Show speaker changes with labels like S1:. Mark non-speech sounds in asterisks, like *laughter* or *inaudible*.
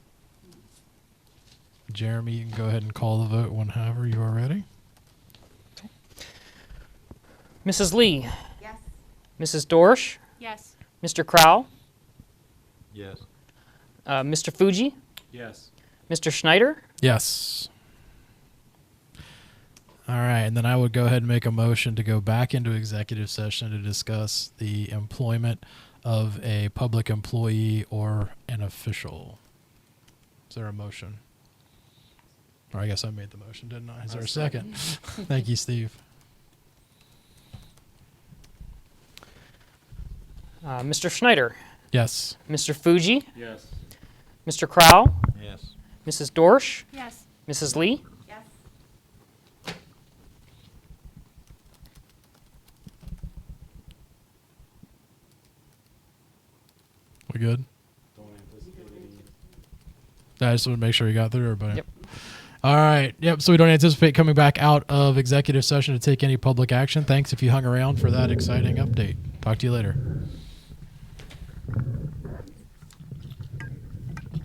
S1: Jeremy, you can go ahead and call the vote whenever you are ready.
S2: Mrs. Lee,
S3: Yes.
S2: Mrs. Dorsch,
S3: Yes.
S2: Mr. Crowell,
S4: Yes.
S2: uh, Mr. Fuji,
S4: Yes.
S2: Mr. Schneider.
S1: Yes. All right, and then I would go ahead and make a motion to go back into executive session to discuss the employment of a public employee or an official. Is there a motion? Or I guess I made the motion, didn't I? Is there a second? *laughs* Thank you, Steve.
S2: Uh, Mr. Schneider,
S1: Yes.
S2: Mr. Fuji,
S4: Yes.
S2: Mr. Crowell,
S4: Yes.
S2: Mrs. Dorsch,
S3: Yes.
S2: Mrs. Lee,
S3: Yes.
S1: We good? I just want to make sure you got through everybody.
S2: Yep.
S1: All right. Yep. So we don't anticipate coming back out of executive session to take any public action. Thanks if you hung around for that exciting update. Talk to you later.